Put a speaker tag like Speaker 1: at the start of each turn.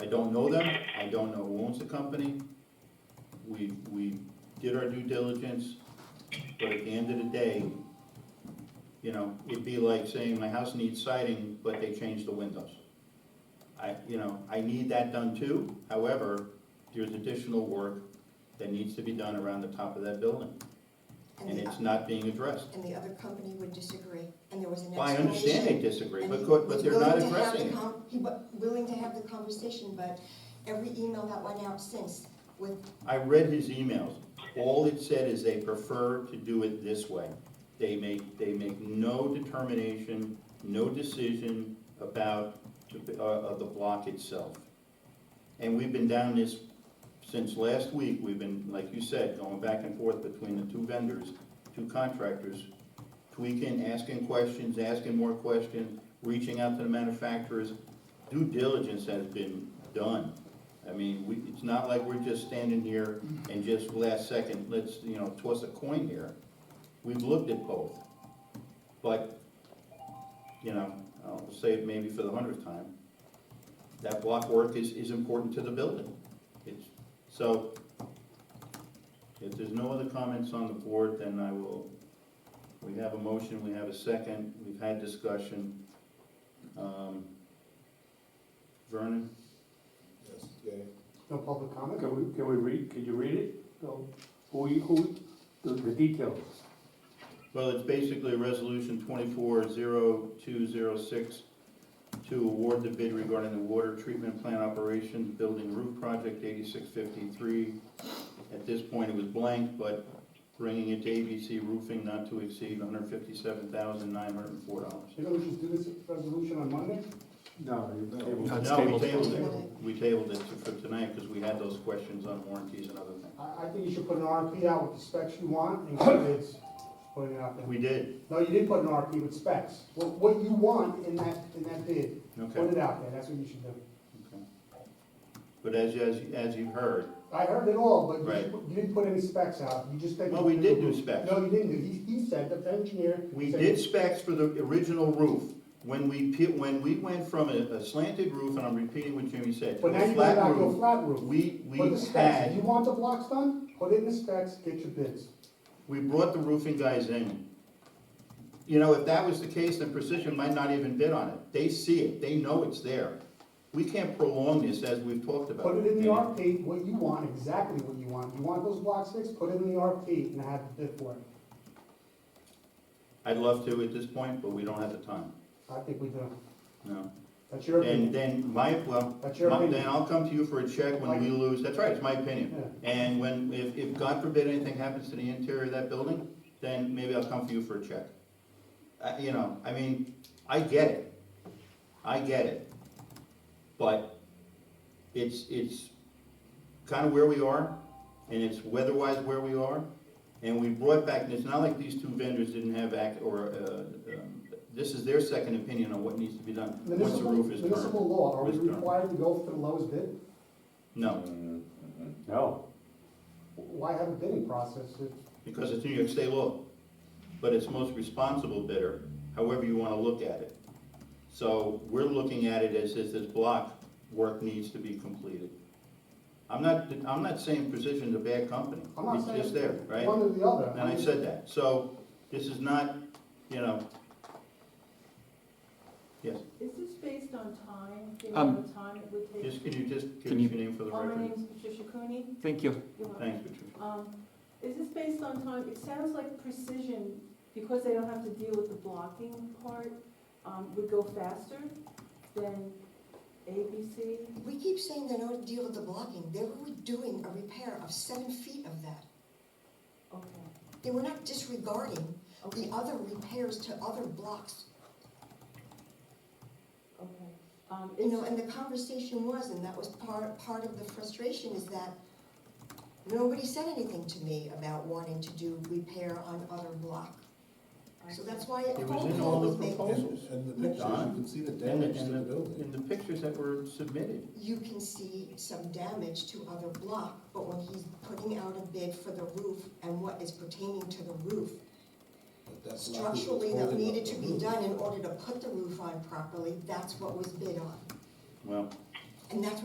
Speaker 1: I don't know them, I don't know who owns the company. We, we did our due diligence, but at the end of the day, you know, it'd be like saying my house needs siding, but they changed the windows. I, you know, I need that done too, however, there's additional work that needs to be done around the top of that building,
Speaker 2: And
Speaker 1: and
Speaker 2: the,
Speaker 1: it's not being addressed.
Speaker 2: and the other company would disagree, and there was an explanation.
Speaker 1: Well, I understand they disagree,
Speaker 2: and
Speaker 1: but,
Speaker 2: he
Speaker 1: co-
Speaker 2: was
Speaker 1: but they're not
Speaker 2: willing to have the
Speaker 1: addressing it.
Speaker 2: con- He was willing to have the conversation, but every email that went out since with,
Speaker 1: I read his emails. All it said is they prefer to do it this way. They make, they make no determination, no decision about, the- uh, of the block itself. And we've been down this since last week. We've been, like you said, going back and forth between the two vendors, two contractors, tweaking, asking questions, asking more questions, reaching out to the manufacturers. Due diligence has been done. I mean, we, it's not like we're just standing here and just last second, let's, you know, toss a coin here. We've looked at both, but, you know, I'll say it maybe for the hundredth time, that block work is, is important to the building. It's, so, if there's no other comments on the board, then I will, we have a motion, we have a second, we've had discussion. Um, Vernon?
Speaker 3: Yes, yay.
Speaker 4: No public comment, can we, can we read, can you read it? No. Who, you- who, the, the details?
Speaker 1: Well, it's basically resolution twenty-four zero two zero six to award the bid regarding the water treatment plant operations building roof project eighty-six fifty-three. At this point, it was blank, but bringing it to ABC roofing not to exceed one hundred fifty-seven thousand nine hundred and four dollars.
Speaker 5: You know, we should do this resolution on Monday?
Speaker 4: No. you-
Speaker 3: No.
Speaker 4: they will-
Speaker 6: That's
Speaker 1: No, we
Speaker 6: tabled.
Speaker 1: tabled it, we tabled it for tonight because we had those questions on warranties and other things.
Speaker 5: I, I think you should put an RFP out with the specs you want and get bids, putting it out there.
Speaker 1: We did,
Speaker 5: No, you didn't put an RFP with specs. What, what you want in that, in that bid, put
Speaker 1: okay.
Speaker 5: it out there, that's what you should do.
Speaker 1: But as, as, as you've heard,
Speaker 5: I heard it all, but you,
Speaker 1: Right.
Speaker 5: didn't put- you didn't put any specs out, you just said.
Speaker 1: well, we did do specs.
Speaker 5: No, you didn't, he, he said, the engineer.
Speaker 1: We
Speaker 5: said-
Speaker 1: did specs for the original roof. When we, pe- when we went from a a slanted roof, and I'm repeating what Jimmy said, to
Speaker 5: But now
Speaker 1: a
Speaker 5: you went
Speaker 1: flat
Speaker 5: out to a
Speaker 1: roof,
Speaker 5: flat roof.
Speaker 1: we, we
Speaker 5: Put the specs, if you
Speaker 1: had,
Speaker 5: want the blocks done, put in the specs, get your bids.
Speaker 1: we brought the roofing guys in. You know, if that was the case, then Precision might not even bid on it. They see it, they know it's there. We can't prolong this as we've talked about.
Speaker 5: Put it in the RFP, what you want, exactly what you want. You want those blocks fixed, put it in the RFP and have the bid for it.
Speaker 1: I'd love to at this point, but we don't have the time,
Speaker 5: I think we do.
Speaker 1: no.
Speaker 5: That's your
Speaker 1: And
Speaker 5: opinion.
Speaker 1: then my, well,
Speaker 5: That's your
Speaker 1: my- then
Speaker 5: opinion.
Speaker 1: I'll come to you for a check when we
Speaker 5: Like-
Speaker 1: lose, that's right, it's my
Speaker 5: Yeah.
Speaker 1: opinion. And when, if, if God forbid anything happens to the interior of that building, then maybe I'll come for you for a check. Uh, you know, I mean, I get it, I get it, but it's, it's kinda where we are, and it's weather-wise where we are, and we brought back, and it's not like these two vendors didn't have act, or, uh, um, this is their second opinion on what needs to be done, once the
Speaker 5: Municipal,
Speaker 1: roof is turned.
Speaker 5: municipal law, are we
Speaker 1: Is turned.
Speaker 5: required to go for the lowest bid?
Speaker 1: No,
Speaker 4: No.
Speaker 5: Why have a bidding process? It-
Speaker 1: because it's New York State law, but it's most responsible bidder, however you wanna look at it. So we're looking at it as if this block work needs to be completed. I'm not, I'm not saying Precision's a bad company,
Speaker 5: I'm not
Speaker 1: it's
Speaker 5: saying
Speaker 1: just there, right?
Speaker 5: One or the other.
Speaker 1: And I said that, so this is not, you know, yes,
Speaker 7: Is this based on time, the
Speaker 6: Um,
Speaker 7: amount of time it would take?
Speaker 1: just, can you just give
Speaker 6: Can
Speaker 1: us
Speaker 6: you-
Speaker 1: your name for the
Speaker 7: Oh, my
Speaker 1: record?
Speaker 7: name's Patricia Cooney.
Speaker 6: Thank you.
Speaker 7: You're welcome.
Speaker 1: Thanks, Patricia.
Speaker 7: Um, Is this based on time? It sounds like precision, because they don't have to deal with the blocking part, um, would go faster than ABC?
Speaker 2: we keep saying they don't deal with the blocking, they were doing a repair of seven feet of that.
Speaker 7: Okay,
Speaker 2: They were not disregarding the
Speaker 7: okay,
Speaker 2: other repairs to other blocks,
Speaker 7: okay. Um,
Speaker 2: you know,
Speaker 7: it's-
Speaker 2: and the conversation was, and that was part, part of the frustration is that nobody said anything to me about wanting to do repair on other block,
Speaker 7: I-
Speaker 2: so that's why it
Speaker 1: It was
Speaker 2: cold
Speaker 1: in all
Speaker 2: call
Speaker 1: the
Speaker 2: was made.
Speaker 1: proposals,
Speaker 3: And the pictures, you can see the
Speaker 1: and the,
Speaker 3: damage to the
Speaker 1: and the,
Speaker 3: building.
Speaker 1: and the pictures that were submitted.
Speaker 2: you can see some damage to other block, but when he's putting out a bid for the roof and what is pertaining to the roof,
Speaker 3: but that's not what's
Speaker 2: structurally that
Speaker 3: holding up
Speaker 2: needed
Speaker 3: the
Speaker 2: to be
Speaker 3: roof.
Speaker 2: done in order to put the roof on properly, that's what was bid on.
Speaker 1: Well,
Speaker 2: And that's